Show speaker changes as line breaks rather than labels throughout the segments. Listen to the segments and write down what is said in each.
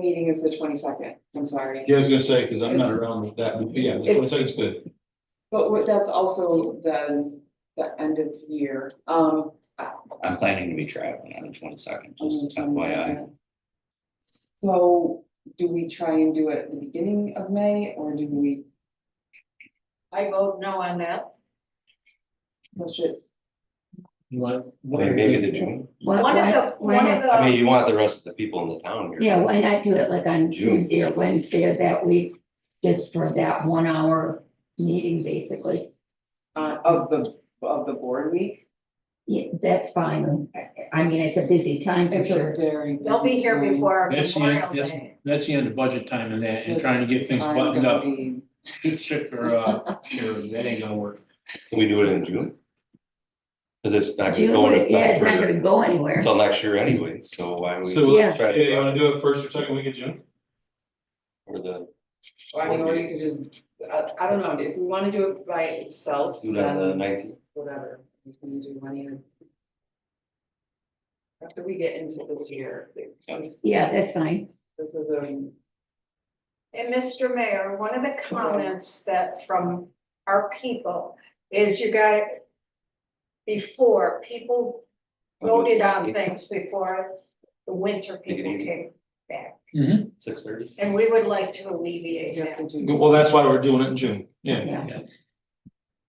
meeting is the twenty-second, I'm sorry.
Yeah, I was gonna say, because I'm not around with that, but yeah, the
It-
twenty second's good.
But what- that's also the, the end of year, um.
I'm planning to be traveling on the twenty second,
Oh,
just
um,
FYI.
So do we try and do it at the beginning of May or do we
I vote no on that.
push it?
You want?
Maybe the June,
Why,
One of
Uh, why-
the,
why
one
not-
of
I mean,
the,
you want the rest of the people in the town here.
Yeah, why not do it like on
June.
Tuesday or Wednesday of that week, just for that one hour meeting, basically?
Uh, of the, of the board week?
Yeah, that's fine. I- I mean, it's a busy time for
It's a
sure.
very.
they'll be
busy
here
time.
before
That's the,
Memorial
end- that's,
Day.
that's the end of budget time and that, and trying to get things
I'm
buttoned
gonna
up.
be-
Chip or, uh, Sharon, that ain't gonna work.
Can we do it in June? Cause it's not gonna
June,
go
would- yeah, it's not
into,
gonna go anywhere.
until next year anyway, so why don't we?
So, let's-
try
yeah,
to
you wanna do it first or second week of June?
Or the,
I mean, or you could just, I, I don't know, if we wanna do it by itself,
do it on the
Um,
then
nineteenth,
whatever, we can do one either. After we get into this year, this,
Yeah, that's fine.
this is a,
And Mr. Mayor, one of the comments that from our people is you got before, people voted on things before the winter
Take it
people
easy.
came back.
Mhm.
six thirty?
And we would like to
you
alleviate
have to
that.
do.
Well, that's why we're doing it in June, yeah.
Yeah.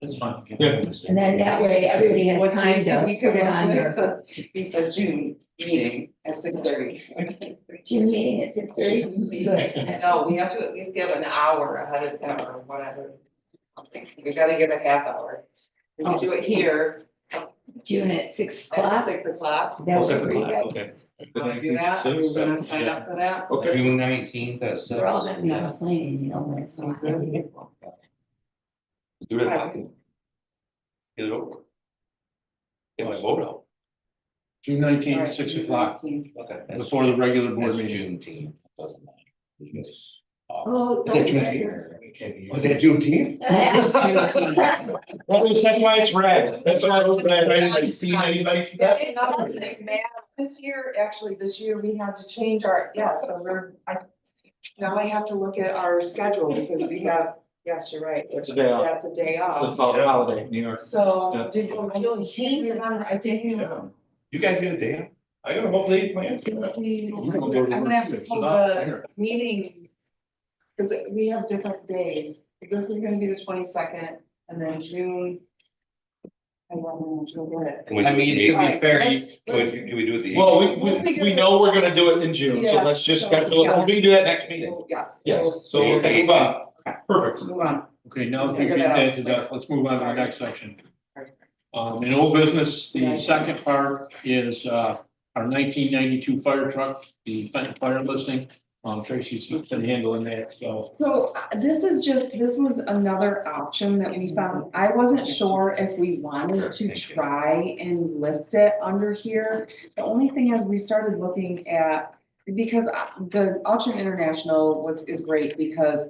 That's fine.
Yeah.
And then that way everybody has
What date
time
did
to
we
put
come
it
up
on
with?
their
We said June meeting at six thirty.
June meeting at six thirty. Good.
No, we have to at least give an hour ahead of time or whatever. We gotta give a half hour. We can do it here
June at six
at
o'clock.
six
Oh,
o'clock.
That would be good.
Okay,
Wanna do that? Are we gonna sign up for that?
Okay,
June nineteenth at six.
We're all gonna be on a plane, you know, when it's not.
Do it at five. Get it over. with. Get my vote out.
June nineteenth, six o'clock,
Okay.
before the regular board
That's
meeting.
Juneteenth, doesn't matter. It's off.
Oh.
Is that
don't-
Juneteenth?
It can't be-
Was Oh, that Juneteenth?
That's Juneteenth.
that's why it's red, that's why I was red, I didn't see anybody.
That's another thing, man, this year, actually, this year, we had to change our, yeah, so we're, I, now I have to look at our schedule, because we have, yes, you're right.
That's a day off.
That's a day
The
off,
holiday, New York.
so,
Yeah.
did, I don't, I didn't.
You guys get a day? off?
I got a whole day planned.
We- I'm gonna have to pull the meeting. Cause we have different days, this is gonna be the twenty-second, and then June. I don't know, June, what?
Can we do
I mean,
the
to be
Alright,
fair,
let's-
you,
Can we, can we do it the?
Well, we, we, we know we're gonna do it in June, so let's just schedule it, we can do that next meeting.
Yes.
Yes, so
Yeah.
we're gonna move on. perfect.
Move on.
Okay, now that we
Figure
beat
that out.
that to death, let's move on to the
Sorry.
next section. Um, in old business,
Yeah.
the second part is, uh, our nineteen ninety-two fire truck, the fi- fire listing. Um, Tracy's been handling that, so.
So uh, this is just, this was another option that we found. I wasn't sure if we wanted to try and list it under here. The only thing is we started looking at, because uh, the Auction International was, is great because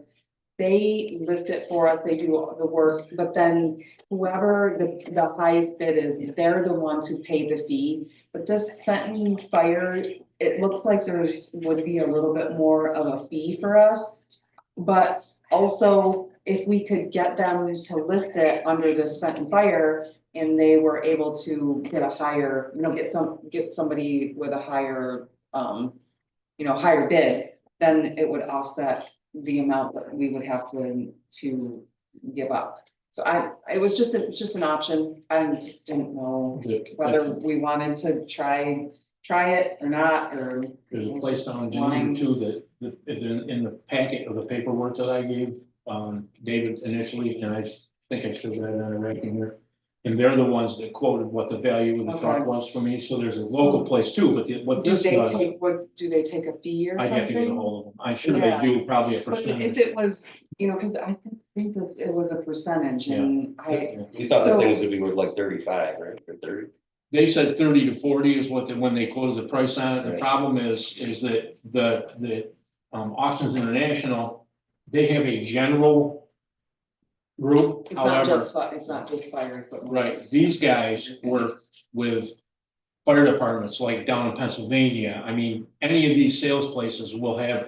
they list it for us, they do all the work, but then whoever the, the highest bid is, they're the ones who pay the fee. But this Fenton Fire, it looks like there's, would be a little bit more of a fee for us. But also, if we could get them to list it under this Fenton Fire and they were able to get a higher, you know, get some, get somebody with a higher, um, you know, higher bid, then it would offset the amount that we would have to, to give up. So I, it was just, it's just an option. I didn't know whether we wanted to try, try it or not, or
There's a place down in Geneva too that, that, in, in the packet of the paperwork that I gave, um, David initially, and I s- think I still got it on a record here. And they're the ones that quoted what the value of the truck
Okay.
was for me, so there's a local place too, but the- what
do
this
they
does,
take, what, do they take a fee or
I'd
something?
have to get ahold of them. I'm sure they
Yeah.
do probably a
But if
percentage.
it was, you know, cause I think- think that it was a percentage and I,
You thought the
So-
things would be worth like thirty-five, right, or thirty?
They said thirty to forty is what, they- when they quoted the price on it. The
Right.
problem is, is that the, the, um, Auctions International, they have a general group,
it's not
however.
just, fi- it's not just fire equipment.
Right,
it's-
these guys work with fire departments like down in Pennsylvania. I mean, any of these sales places will have